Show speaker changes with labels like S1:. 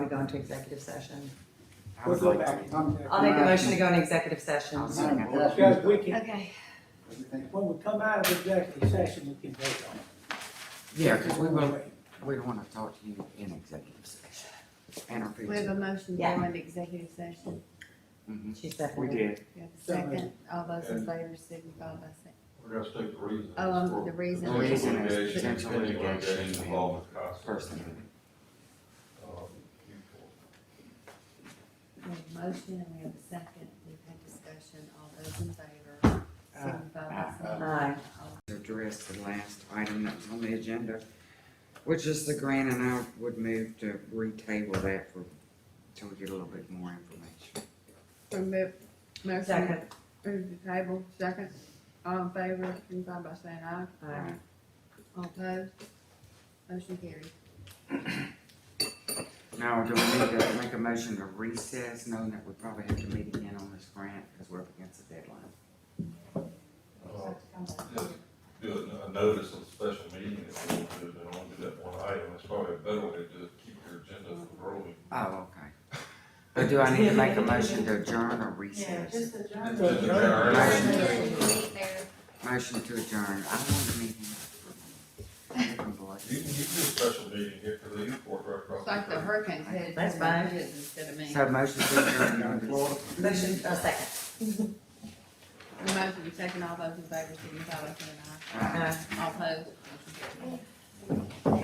S1: go into executive session.
S2: I
S3: We'll
S2: would
S3: go
S2: like to
S3: back.
S2: meet.
S3: I'm-
S1: I'll make a motion to go into executive session.
S2: I'll second that.
S3: Because we can,
S4: Okay.
S3: when we come out of executive session, we can vote on it.
S2: Yeah, because we will, we want to talk to you in executive session. And our
S4: We have
S2: future.
S4: a motion to go into executive session.
S2: Mhm.
S1: She
S2: We
S1: seconded.
S2: did.
S4: We have a second. All those in favor signify by saying.
S5: We're gonna state the reason.
S4: Oh, um, the reason.
S2: The reason is potential
S5: Potential
S2: litigation.
S5: litigation involving cost.
S2: Personally.
S4: We have a motion and we have a second. We've had discussion. All those in favor signify by saying.
S1: Aye.
S4: All-
S2: Address the last item that was on the agenda, which is the grant, and I would move to retable that for, till we get a little bit more information.
S4: Remove, motion,
S1: Second.
S4: move the table, second. All in favor signify by saying aye.
S1: Aye.
S4: All opposed? Motion carried.
S2: Now, do we need to make a motion to recess, knowing that we probably have to meet again on this grant, because we're up against the deadline?
S5: Uh, Just do a- a notice of special meeting if we want to, then I'll do that one item, it's probably a better way to just keep your agenda from rolling.
S2: Oh, okay. But do I need to make a motion to adjourn or recess?
S5: Just adjourn.
S2: Motion to
S6: there.
S2: Motion to adjourn. I want to meet him. I'm
S5: You can,
S2: bloody.
S5: you can do a special meeting here for the airport right across.
S4: It's like the
S5: the
S4: hurricane's headed.
S1: That's
S4: for
S1: fine.
S4: the woods Instead of me.
S2: So motion to adjourn.
S1: Motion, uh, second.
S4: The motion is second. All those in favor signify by saying aye.
S2: Uh,
S4: All opposed? Motion carried.